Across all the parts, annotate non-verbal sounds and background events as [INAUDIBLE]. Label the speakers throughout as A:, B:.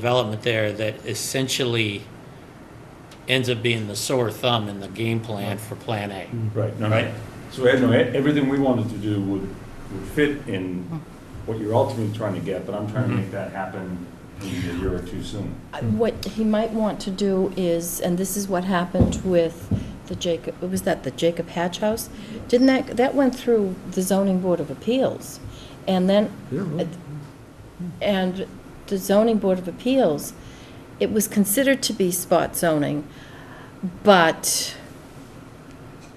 A: development there that essentially ends up being the sore thumb in the game plan for Plan A.
B: Right, no,
A: Right.
B: no. So, Ed, no, e- everything we wanted to do would, would fit in
C: Hmm.
B: what you're ultimately trying to get, but I'm trying to make that happen maybe a year or two soon.
D: I- What he might want to do is, and this is what happened with the Jacob, was that the Jacob Hatch House? Didn't that, that went through the zoning board of appeals? And then, and the zoning board of appeals, it was considered to be spot zoning, but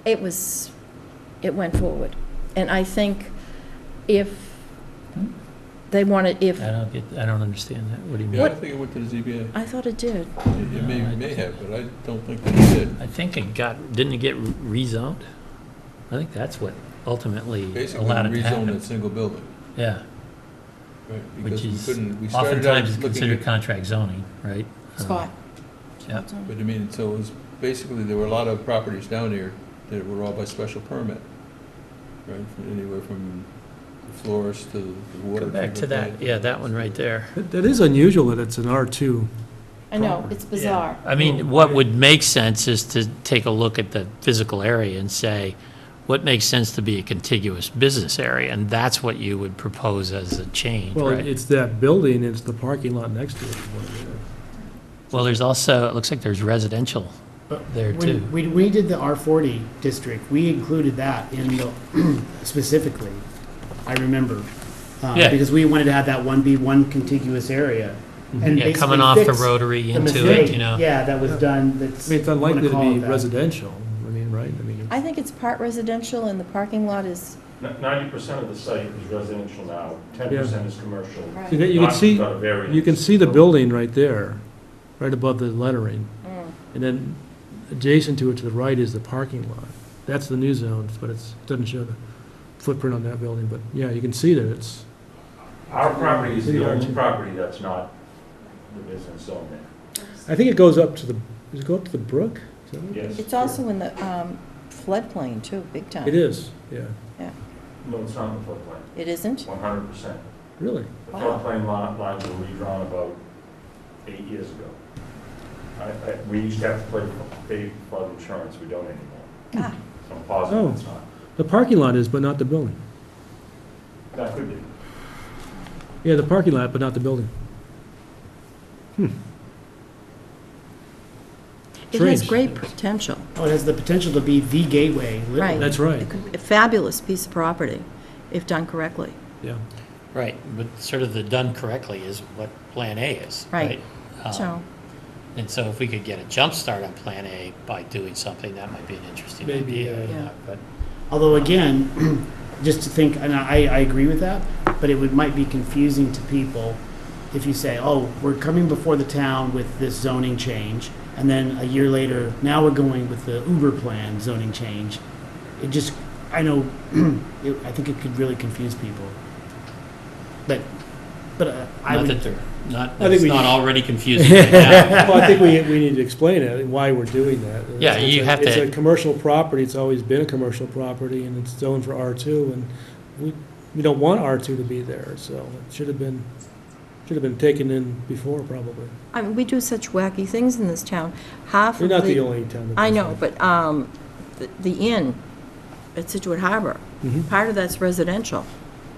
D: it was, it went forward. And I think if they wanted, if,
E: I don't get, I don't understand that. What do you
F: Yeah, I
E: mean?
F: think it went to the ZBA.
D: I thought it did.
F: It may, it may have, but I don't think they did.
E: I think it got, didn't it get rezoned? I think that's what ultimately
F: Basically,
E: allowed it to
F: rezoned
E: happen.
F: that single building,
E: Yeah,
F: right?
E: which
F: Because we
E: is
F: couldn't, we started out
E: oftentimes is
F: looking
E: considered
F: at,
E: contract zoning, right? Um,
D: Spot.
E: Yeah.
F: but I mean, so it was, basically, there were a lot of properties down here that were all by special permit, right? From Anywhere from the florist to the water.
E: Go back to
F: treatment
E: that,
F: plant.
E: yeah, that one right there.
C: That that is unusual that it's an R2.
D: I know, it's bizarre.
E: I mean, what would make sense is to take a look at the physical area and say, what makes sense to be a contiguous business area? And that's what you would propose as a change,
C: Well,
E: right?
C: it's that building, it's the parking lot next to it.
E: Well, there's also, it looks like there's residential there too.
G: When, when we did the R40 district, we included that in the, [CLEARS THROAT] specifically, I remember. uh,
E: Yeah.
G: Because we wanted to have that one be one contiguous area. and
E: Mm-hmm. Yeah,
G: basically
E: coming off the
G: fix
E: rotary
G: the
E: into it,
G: mistake,
E: you know?
G: Yeah, that was done, that's.
C: I mean, it's
G: you wanna
C: unlikely to
G: call
C: be
G: it that.
C: residential, I mean, right? I mean,
D: I think it's part residential and the parking lot is,
B: Ninety percent of the site is residential now, ten percent is commercial.
C: you can- you
B: Not
C: can see,
B: without a variance.
C: you can see the building right there, right above the lettering.
D: Mm.
C: And then adjacent to it to the right is the parking lot. That's the new zone, but it's, doesn't show the footprint on that building, but yeah, you can see that it's,
B: Our property is
C: See,
B: the only
C: Archie.
B: property that's not the business zone there.
C: I think it goes up to the, does it go up to the brook? Is that what-
B: Yes.
D: it's also in the um, floodplain too, big time.
C: It is, yeah,
B: No, it's not in the floodplain,
D: It isn't?
B: one hundred percent.
C: really.
B: The
D: Wow.
B: floodplain lot lines were redrawn about eight years ago. I, I, we used to have to play, pay flood insurance, we don't anymore.
D: Ah.
B: So I'm positive it's not.
C: The parking lot is, but not the building.
B: That could be.
C: Yeah, the parking lot, but not the building.
D: It has
C: Strange.
D: great potential,
G: Oh, it has the potential to be the gateway,
D: right.
G: literally.
C: That's right.
D: It could be A fabulous piece of property, if done correctly.
C: Yeah.
A: Right, but sort of the done correctly is what Plan A is, right?
D: Right.
E: Oh.
A: Um,
D: So,
A: And so if we could get a jump start on Plan A by doing something, that might be an interesting
C: Maybe,
A: idea.
C: uh,
D: Yeah.
A: But
G: Although again, [CLEARS THROAT] just to think, and I, I agree with that, but it would, might be confusing to people if you say, oh, we're coming before the town with this zoning change, and then a year later, now we're going with the Uber plan zoning change. It just, I know, [CLEARS THROAT] it, I think it could really confuse people. But, but uh, I
A: not
G: would.
A: that they're, not,
C: think
A: it's
C: we-
A: not already confusing right now.
C: Well, I think we, we need to explain it, why we're doing that. It's-
E: Yeah, you
C: it's a-
E: have to-
C: It's a commercial property, it's always been a commercial property, and it's zoned for R2, and we, we don't want R2 to be there, so it should have been, should have been taken in before, probably.
D: I mean, we do such wacky things in this town. Half
C: You're
D: of
C: not the
D: the,
C: only town that
D: I
C: does
D: know,
C: that.
D: but um, the- the inn at Situate Harbor,
C: Mhm.
D: part of that's residential,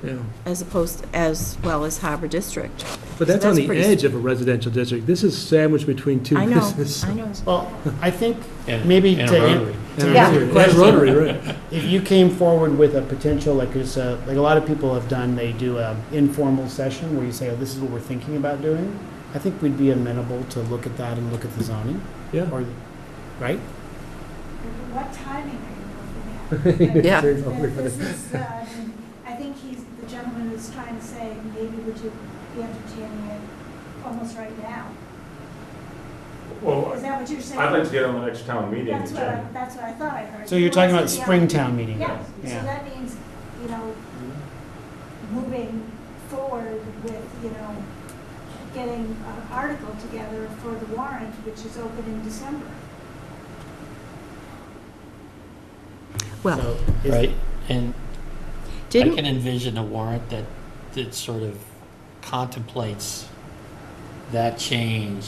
C: Yeah.
D: as opposed, as well as Harbor District.
C: But that's
D: So
C: on
D: that's
C: the
D: pretty-
C: edge of a residential district. This is sandwiched between two
D: I know,
C: businesses.
D: I know.
G: Well,
A: [LAUGHS]
G: I think
A: And-
G: maybe
A: and a
G: to,
A: rotary.
G: an- to
D: Yeah.
G: answer your
C: And
G: question.
C: Rotary, right.
G: If you came forward with a potential, like there's a, like a lot of people have done, they do an informal session where you say, oh, this is what we're thinking about doing. I think we'd be amenable to look at that and look at the zoning,
C: Yeah.
G: or, right?
H: What timing are you looking at?
D: Yeah.
H: Like, This is, uh, I mean, I think he's, the gentleman is trying to say, maybe would you be entertaining it almost right now? Is
B: Well,
H: that what you're saying?
B: I'd like to get on the next town meeting.
H: That's what, I-
B: agenda.
H: that's what I thought I heard.
G: So you're
H: He
G: talking about
H: wants to be on-
G: Springtown meeting?
H: Yeah, so
G: Yeah.
H: that means, you know, moving forward with, you know, getting an article together for the warrant, which is open in December.
D: Well,
G: So is-
A: Right, and I
D: didn't,
A: can envision a warrant that, that sort of contemplates
E: that change